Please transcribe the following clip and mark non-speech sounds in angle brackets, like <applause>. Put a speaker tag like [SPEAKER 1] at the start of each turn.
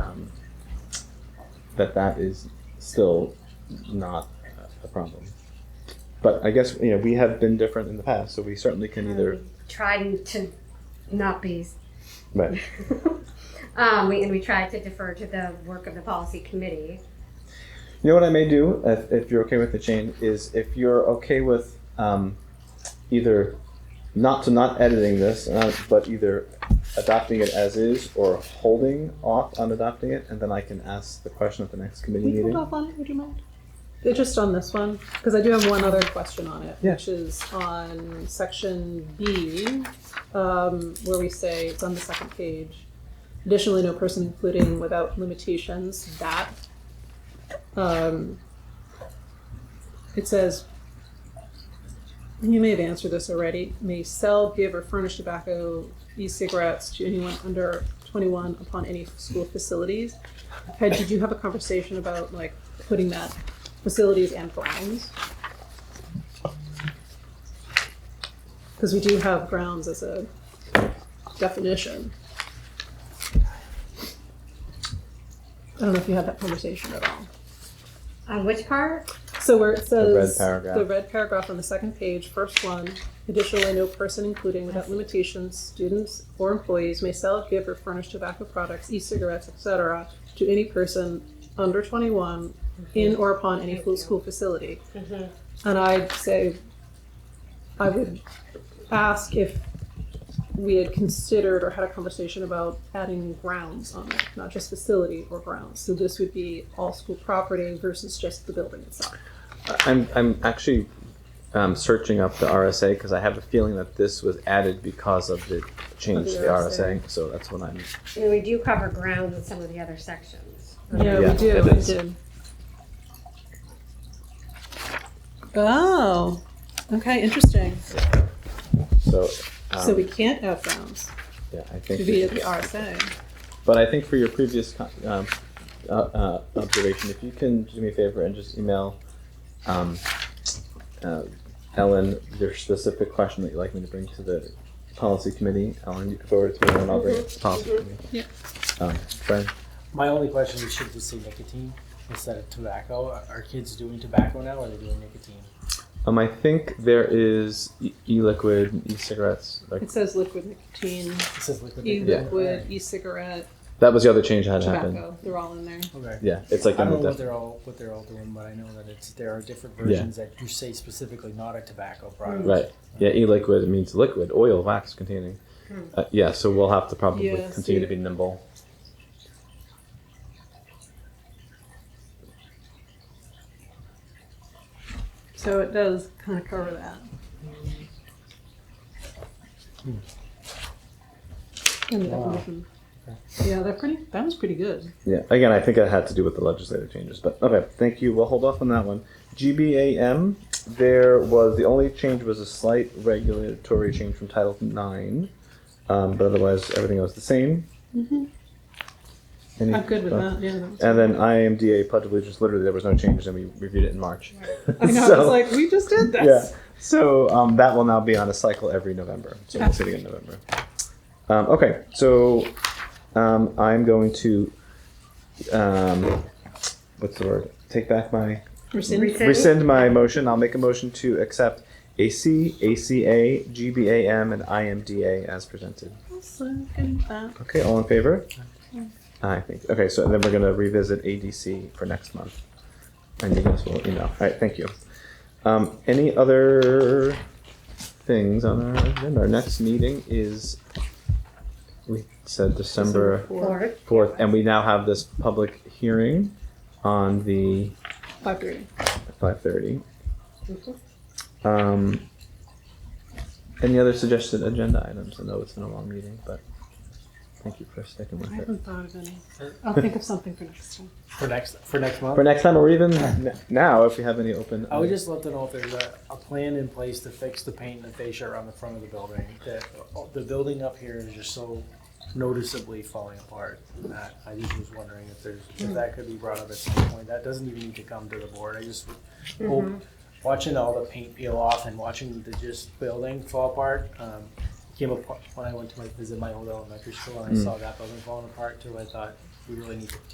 [SPEAKER 1] Um,
[SPEAKER 2] that that is still not a problem. But I guess, you know, we have been different in the past, so we certainly can either,
[SPEAKER 3] Tried to not be.
[SPEAKER 2] right.
[SPEAKER 3] <laughs> Um, we, and we tried to defer to the work of the policy committee.
[SPEAKER 2] You know what I may do, if, if you're okay with the Jane, is if you're okay with um, either not to not editing this, uh, but either adopting it as is or holding off on adopting it, and then I can ask the question at the next committee
[SPEAKER 1] Can we
[SPEAKER 2] meeting.
[SPEAKER 1] hold off on it? Would you mind? Uh, Just on this one, because I do have one other question on it,
[SPEAKER 2] Yeah.
[SPEAKER 1] which is on section B, um, where we say it's on the second page. Additionally, no person including without limitations that. Um, it says. You may have answered this already. May sell, give, or furnish tobacco, e-cigarettes to anyone under twenty-one upon any school facilities. Ted, did you have a conversation about like putting that facilities and grounds? Because we do have grounds as a definition. I don't know if you had that conversation at all.
[SPEAKER 3] On which part?
[SPEAKER 1] So where it says.
[SPEAKER 2] red paragraph.
[SPEAKER 1] the red paragraph on the second page, first one, additionally, no person including without limitations, students or employees may sell, give, or furnish tobacco products, e-cigarettes, et cetera, to any person under twenty-one in or upon any full school facility. And I'd say, I would ask if we had considered or had a conversation about adding grounds on it, not just facility or grounds. So this would be all school property versus just the building itself.
[SPEAKER 2] I'm, I'm actually um, searching up the RSA because I have a feeling that this was added because of the change to the RSA, so that's what I'm,
[SPEAKER 3] And we do cover grounds in some of the other sections.
[SPEAKER 1] Yeah, we
[SPEAKER 2] Yeah,
[SPEAKER 1] do.
[SPEAKER 2] it
[SPEAKER 1] We
[SPEAKER 2] is.
[SPEAKER 1] do. Oh, okay, interesting.
[SPEAKER 2] so.
[SPEAKER 1] so
[SPEAKER 2] um,
[SPEAKER 1] we can't have grounds
[SPEAKER 2] Yeah, I think. we
[SPEAKER 1] via
[SPEAKER 2] should-
[SPEAKER 1] the RSA.
[SPEAKER 2] But I think for your previous co- um, uh, uh, observation, if you can do me a favor and just email um, uh, Ellen your specific question that you'd like me to bring to the policy committee, Ellen, you can forward it to me and I'll bring it to the policy committee.
[SPEAKER 1] Mm-hmm. Yeah.
[SPEAKER 2] Um, Brian,
[SPEAKER 4] My only question is should we say nicotine instead of tobacco? Are- Are kids doing tobacco now or are they doing nicotine?
[SPEAKER 2] um, I think there is e- e-liquid, and e-cigarettes. Like,
[SPEAKER 1] It says liquid nicotine,
[SPEAKER 4] It says liquid nicotine.
[SPEAKER 1] e-liquid, e-cigarette,
[SPEAKER 2] that was the other change that had happened.
[SPEAKER 1] tobacco. They're all in there.
[SPEAKER 4] Okay.
[SPEAKER 2] Yeah, it's like
[SPEAKER 4] I
[SPEAKER 2] in
[SPEAKER 4] don't
[SPEAKER 2] the
[SPEAKER 4] know what
[SPEAKER 2] def-
[SPEAKER 4] they're all what they're all doing, but I know that it's there are different
[SPEAKER 2] Yeah.
[SPEAKER 4] versions that you say specifically not a tobacco product.
[SPEAKER 2] right. Yeah, e-liquid means liquid, oil, wax containing. Uh, yeah, so we'll have to probably
[SPEAKER 1] Hmm. Yeah,
[SPEAKER 2] continue to
[SPEAKER 1] see.
[SPEAKER 2] be nimble.
[SPEAKER 1] So it does kind of cover that. And the
[SPEAKER 4] Wow.
[SPEAKER 1] definition. Yeah, they're pretty, that was pretty good.
[SPEAKER 2] Yeah, again, I think it had to do with the legislative changes, but okay, thank you. We'll hold off on that one. GBAM, there was the only change was a slight regulatory change from Title IX, um, but otherwise everything else the same.
[SPEAKER 1] Mm-hmm.
[SPEAKER 2] Any-
[SPEAKER 1] I'm good with
[SPEAKER 2] uh,
[SPEAKER 1] that, yeah. that was-
[SPEAKER 2] And then IMDA Pledge of Allegiance, literally there was no changes, and we reviewed it in March. <laughs>
[SPEAKER 1] I know, I was
[SPEAKER 2] So-
[SPEAKER 1] like, we just did
[SPEAKER 2] yeah.
[SPEAKER 1] this.
[SPEAKER 2] So um, that will now be on a cycle every November. So we'll see it again in November. Um, okay. So um, I'm going to um, what's the word? Take back my
[SPEAKER 1] Rescind.
[SPEAKER 2] rescind my motion. I'll make a motion to accept AC, ACA, GBAM, and IMDA as presented.
[SPEAKER 1] Second that.
[SPEAKER 2] Okay. All in favor? I think. Okay. So then we're going to revisit ADC for next month, and you guys will email. All right. Thank you. Um, any other things on our agenda? Our next meeting is, we said December
[SPEAKER 1] Four,
[SPEAKER 3] Or,
[SPEAKER 2] fourth, and we now have this public hearing on the
[SPEAKER 1] five thirty.
[SPEAKER 2] five thirty.
[SPEAKER 3] Mm-hmm.
[SPEAKER 2] Um, any other suggested agenda items? I know it's been a long meeting, but thank you for sticking
[SPEAKER 1] I
[SPEAKER 2] with it.
[SPEAKER 1] haven't thought of any. I'll think of something for next time.
[SPEAKER 4] For next for next month.
[SPEAKER 2] For next time, or
[SPEAKER 4] <laughs>
[SPEAKER 2] even n- now, if we have any open.
[SPEAKER 4] I would just love to know if there's a, a plan in place to fix the paint and fascia around the front of the building. That uh, the building up here is just so noticeably falling apart. And that I just was wondering if there's if that could be brought up at some point. That doesn't even need to come to the board. I just hope watching all the paint peel off and watching the just building fall apart. Um, came up when I went to my, visit my old elementary school and I saw that building falling apart too. I thought we really need to